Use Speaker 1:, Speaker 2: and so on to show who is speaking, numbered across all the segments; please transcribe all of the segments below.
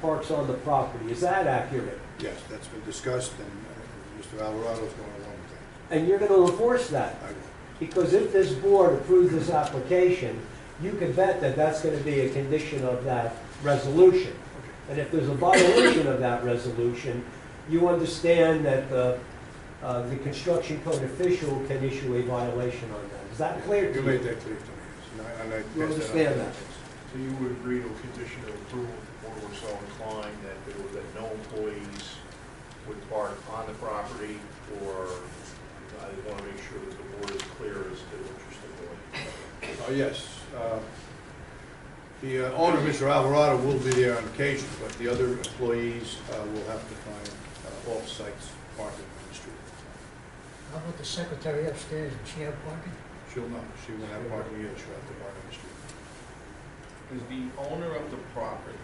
Speaker 1: parks on the property. Is that accurate?
Speaker 2: Yes, that's been discussed, and uh, Mr. Alvarado's going along with that.
Speaker 1: And you're going to enforce that?
Speaker 2: I will.
Speaker 1: Because if this board approves this application, you can bet that that's going to be a condition of that resolution. And if there's a violation of that resolution, you understand that the, uh, the construction code official can issue a violation on that. Is that clear to
Speaker 2: You
Speaker 1: you?
Speaker 2: made that clear to me, yes, and I, and I. uh,
Speaker 1: You
Speaker 2: passed on.
Speaker 1: understand that?
Speaker 3: So you would agree to a condition of approval if the board were so inclined that there were, that no employees would park on the property or I want to make sure that the board is clear as to what you're stipulating.
Speaker 2: Oh, yes. Uh, The uh, owner, Mr. Alvarado, will be there on occasion, but the other employees uh, will have to find uh, off-site parking on the street.
Speaker 4: How about the secretary upstairs, does she have parking?
Speaker 2: She'll know, she won't have parking either, she'll have to park on the street.
Speaker 5: Is the owner of the property,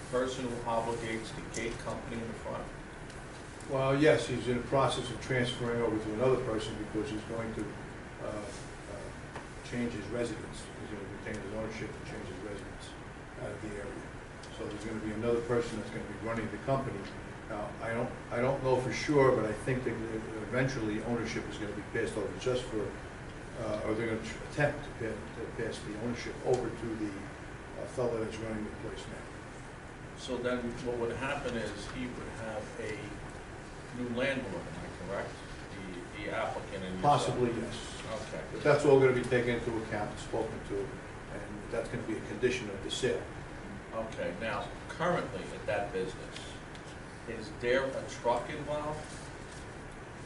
Speaker 5: the person who obligates the gate company in the front?
Speaker 2: Well, yes, he's in the process of transferring over to another person because he's going to uh, uh, change his residence. He's going to retain his ownership and change his residence out of the area. So there's going to be another person that's going to be running the company. Now, I don't, I don't know for sure, but I think that e-, eventually ownership is going to be passed over just for, uh, or they're going to attempt to pa- to pass the ownership over to the uh, fellow that's running the place now.
Speaker 5: So then what would happen is he would have a new landlord, am I correct? The, the applicant and yourself?
Speaker 2: Possibly, yes.
Speaker 5: Okay.
Speaker 2: But that's all gonna be taken into account, spoken to, and that's gonna be a condition of the sale.
Speaker 5: Okay, now, currently at that business, is there a truck involved?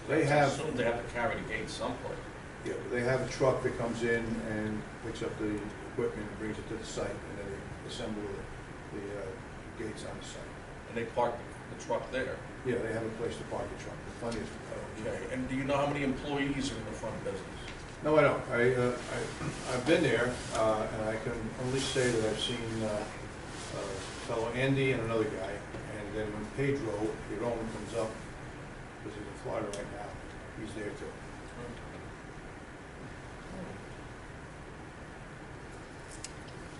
Speaker 2: They
Speaker 5: I
Speaker 2: have,
Speaker 5: assume they have to carry the gate someplace.
Speaker 2: yeah, they have a truck that comes in and picks up the equipment and brings it to the site, and then they assemble the, the uh, gates on the site.
Speaker 5: And they park the truck there.
Speaker 2: Yeah, they have a place to park the truck, the funniest. uh,
Speaker 5: Okay, and do you know how many employees are in the front business?
Speaker 2: No, I don't, I, uh, I, I've been there, uh, and I can only say that I've seen, uh, uh, fellow Andy and another guy, and then when Pedro, your own comes up, because he's in Florida right now, he's there too.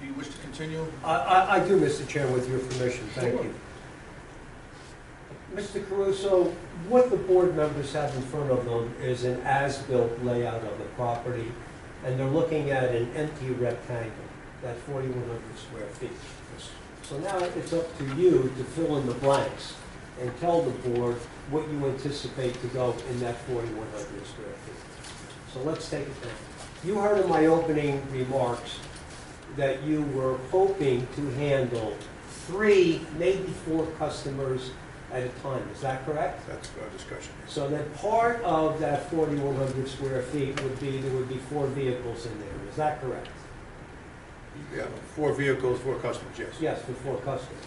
Speaker 5: Do you wish to continue?
Speaker 1: I, I, I do, Mr. Chairman, with your permission, thank
Speaker 5: Sure.
Speaker 1: you. Mr. Caruso, what the board members have in front of them is an as-built layout of the property, and they're looking at an empty rectangle, that's forty-one hundred square feet.
Speaker 2: Yes.
Speaker 1: So now it's up to you to fill in the blanks and tell the board what you anticipate to go in that forty-one hundred square feet. So let's take it down. You heard in my opening remarks that you were hoping to handle three, maybe four customers at a time, is that correct?
Speaker 2: That's our discussion. yes.
Speaker 1: So that part of that forty-one hundred square feet would be, there would be four vehicles in there, is that correct?
Speaker 2: Yeah, four vehicles, four customers, yes.
Speaker 1: Yes, for four customers.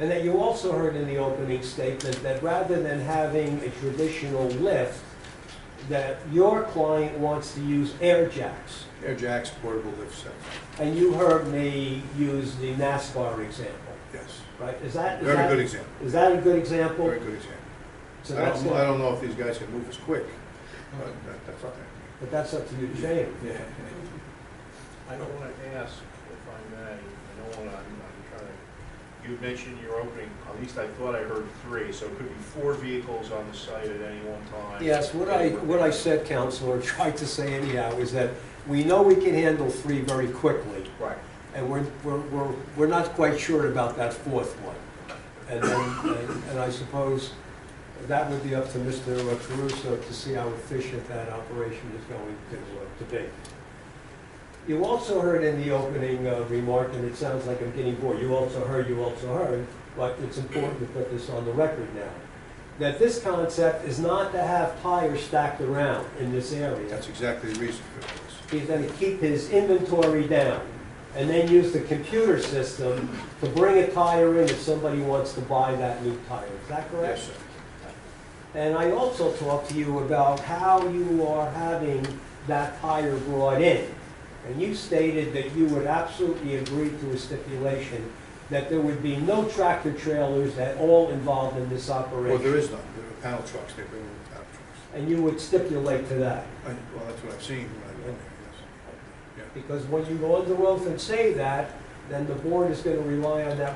Speaker 1: And that you also heard in the opening statement that rather than having a traditional lift, that your client wants to use air jacks.
Speaker 2: Air jacks, portable lift sets,
Speaker 1: And you heard me use the NASCAR example,
Speaker 2: yes.
Speaker 1: right? Is that, is
Speaker 2: Very good
Speaker 1: that,
Speaker 2: example,
Speaker 1: is that a good example?
Speaker 2: very good example.
Speaker 1: So
Speaker 2: I
Speaker 1: that's,
Speaker 2: don't, I
Speaker 1: it.
Speaker 2: don't know if these guys can move as quick, but that- that's all right.
Speaker 1: but that's up to you to change.
Speaker 2: Yeah.
Speaker 3: I don't want to ask, if I may, I don't want to, I'm I'm trying to, you mentioned in your opening, at least I thought I heard three, so it could be four vehicles on the site at any one time.
Speaker 1: Yes, what I, what I said, Counselor, tried to say anyhow, is that we know we can handle three very quickly.
Speaker 3: Right.
Speaker 1: And we're, we're, we're, we're not quite sure about that fourth one. And then, and- and I suppose that would be up to Mr. Caruso to see how efficient that operation is going to, uh, to be. You also heard in the opening uh, remark, and it sounds like I'm getting bored, you also heard, you also heard, but it's important to put this on the record now, that this concept is not to have tires stacked around in this area.
Speaker 2: That's exactly the reason for this.
Speaker 1: He's going to keep his inventory down and then use the computer system to bring a tire in if somebody wants to buy that new tire. Is that correct?
Speaker 2: Yes, sir.
Speaker 1: And I also talked to you about how you are having that tire brought in. And you stated that you would absolutely agree to a stipulation that there would be no tractor trailers at all involved in this
Speaker 2: Well, there
Speaker 1: operation.
Speaker 2: is none, there are panel trucks, they bring them with panel trucks.
Speaker 1: And you would stipulate to that.
Speaker 2: I, well, that's what I've seen when I've been there, yes.
Speaker 1: Because when you go on the road and say that, then the board is going to rely on that